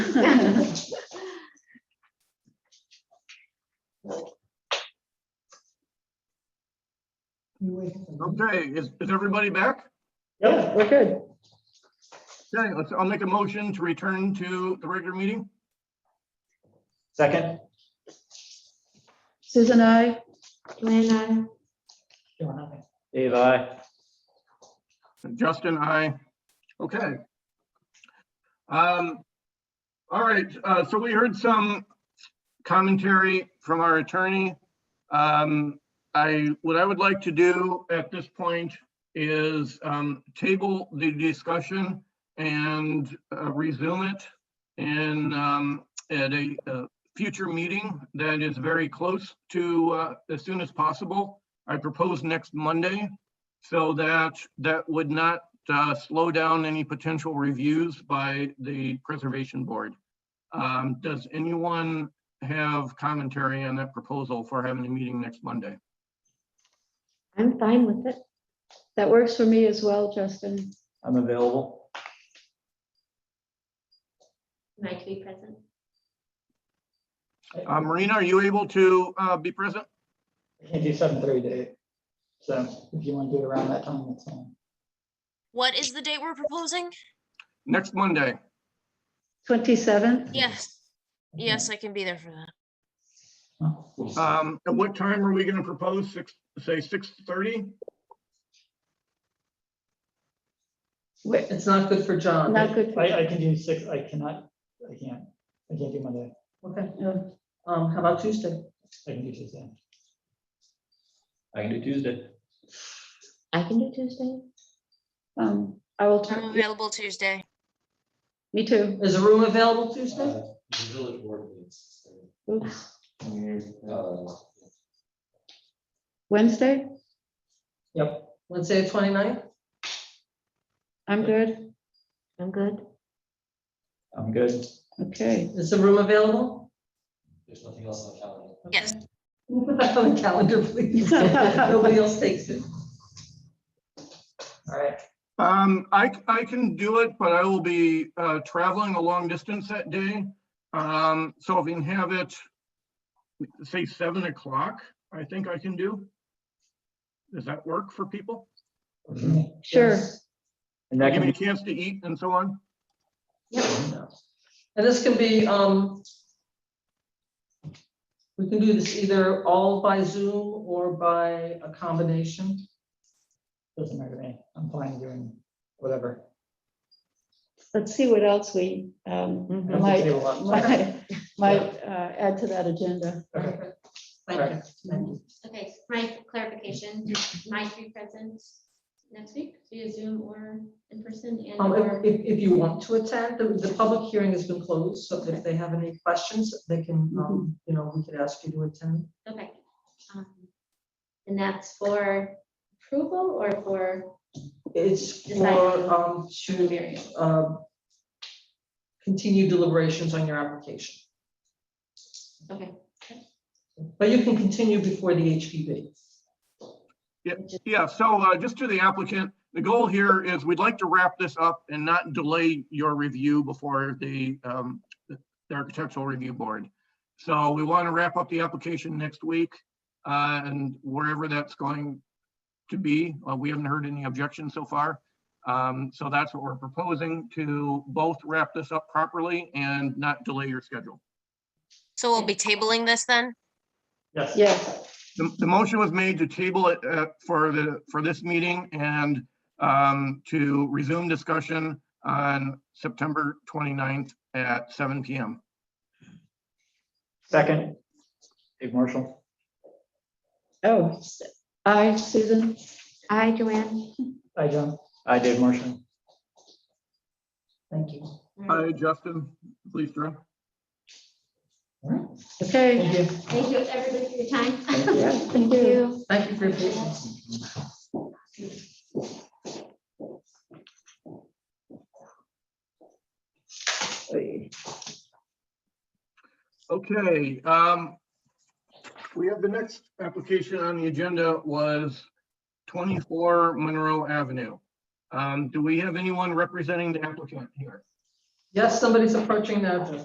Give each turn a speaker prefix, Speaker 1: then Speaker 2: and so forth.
Speaker 1: Okay, is, is everybody back?
Speaker 2: Yep, we're good.
Speaker 1: Okay, let's, I'll make a motion to return to the regular meeting.
Speaker 3: Second?
Speaker 2: Susan, I,
Speaker 4: Joanne, I,
Speaker 3: Dave, I.
Speaker 1: Justin, I, okay. Um, all right, uh, so we heard some commentary from our attorney. Um, I, what I would like to do at this point is, um, table the discussion and uh, resume it in, um, at a, uh, future meeting that is very close to, uh, as soon as possible. I propose next Monday, so that, that would not uh, slow down any potential reviews by the Preservation Board. Um, Does anyone have commentary on that proposal for having a meeting next Monday?
Speaker 4: I'm fine with it.
Speaker 2: that works for me as well, Justin.
Speaker 3: I'm available.
Speaker 4: Am I to be present?
Speaker 1: Uh, Marina, are you able to uh, be present?
Speaker 5: I can't do seven thirty to eight. So if you want to do it around that time, that's fine.
Speaker 6: What is the date we're proposing?
Speaker 1: Next Monday?
Speaker 2: 27th,
Speaker 6: Yes, yes, I can be there for that.
Speaker 1: Um, At what time are we going to propose? Six, say 6:30?
Speaker 7: It's not good for John.
Speaker 2: not good. for-
Speaker 5: I, I can do six, I cannot, I can't, I can't do Monday,
Speaker 7: Okay,
Speaker 2: no.
Speaker 7: um, how about Tuesday?
Speaker 5: I can do Tuesday.
Speaker 3: I can do Tuesday.
Speaker 4: I can do Tuesday.
Speaker 2: Um, I will,
Speaker 6: I'm
Speaker 2: turn.
Speaker 6: available Tuesday.
Speaker 2: me too.
Speaker 7: Is a room available Tuesday?
Speaker 8: Uh, The village board meets.
Speaker 2: Oops.
Speaker 8: uh,
Speaker 2: Wednesday,
Speaker 5: Yep,
Speaker 7: Wednesday, the 29th?
Speaker 2: I'm good.
Speaker 4: I'm good.
Speaker 3: I'm good.
Speaker 2: Okay,
Speaker 7: Is a room available?
Speaker 8: There's nothing else on the calendar.
Speaker 6: Yes.
Speaker 7: Put that on the calendar, please. Nobody else takes it. All right,
Speaker 1: Um, I, c- I can do it, but I will be, uh, traveling a long distance that day. Um, so if we can have it, say seven o'clock, I think I can do. Does that work for people?
Speaker 2: sure.
Speaker 7: yes.
Speaker 3: And that
Speaker 1: Give
Speaker 3: can
Speaker 1: me a
Speaker 3: be,
Speaker 1: chance to eat and so on.
Speaker 7: Yep. And this can be, um, we can do this either all by Zoom or by a combination.
Speaker 5: doesn't matter to me, I'm fine doing whatever.
Speaker 2: Let's see what else we, um,
Speaker 5: I don't
Speaker 2: Like-
Speaker 5: have to table up.
Speaker 2: might, might uh, add to that agenda.
Speaker 5: Okay.
Speaker 7: Thank you.
Speaker 4: Okay, my clarification, my three presents next week, via Zoom or in person and
Speaker 7: Um,
Speaker 4: or.
Speaker 7: if, if if you want to attend, the, the public hearing has been closed, so if they have any questions, they can, um, you know, we could ask you to attend.
Speaker 4: Okay. um, And that's for approval or for
Speaker 7: It's
Speaker 4: Decided.
Speaker 7: for, um, to,
Speaker 4: Burial.
Speaker 7: um, continue deliberations on your application,
Speaker 4: okay.
Speaker 7: but you can continue before the HPV.
Speaker 1: Yeah, so, uh, just to the applicant, the goal here is we'd like to wrap this up and not delay your review before the, um, the Architectural Review Board. So we want to wrap up the application next week, uh, and wherever that's going to be, uh, we haven't heard any objections so far. Um, so that's what we're proposing to both wrap this up properly and not delay your schedule.
Speaker 6: So we'll be tabling this then?
Speaker 5: Yes.
Speaker 2: Yes,
Speaker 1: The, the motion was made to table it uh, for the, for this meeting and um, to resume discussion on September 29th at seven PM.
Speaker 3: second. Dave Marshall.
Speaker 2: oh, I, Susan,
Speaker 4: Hi, Joanne.
Speaker 5: Hi, John.
Speaker 3: I, Dave Marshall.
Speaker 7: Thank you.
Speaker 1: Hi, Justin, please, Drew.
Speaker 2: okay.
Speaker 5: Thank you.
Speaker 4: Thank you, everybody, for your time.
Speaker 2: Yeah, thank you.
Speaker 7: Thank you for your patience.
Speaker 1: Okay, um, we have the next application on the agenda was twenty-four Monroe Avenue. Um, do we have anyone representing the applicant here?
Speaker 7: Yes, somebody's approaching now, Jeff.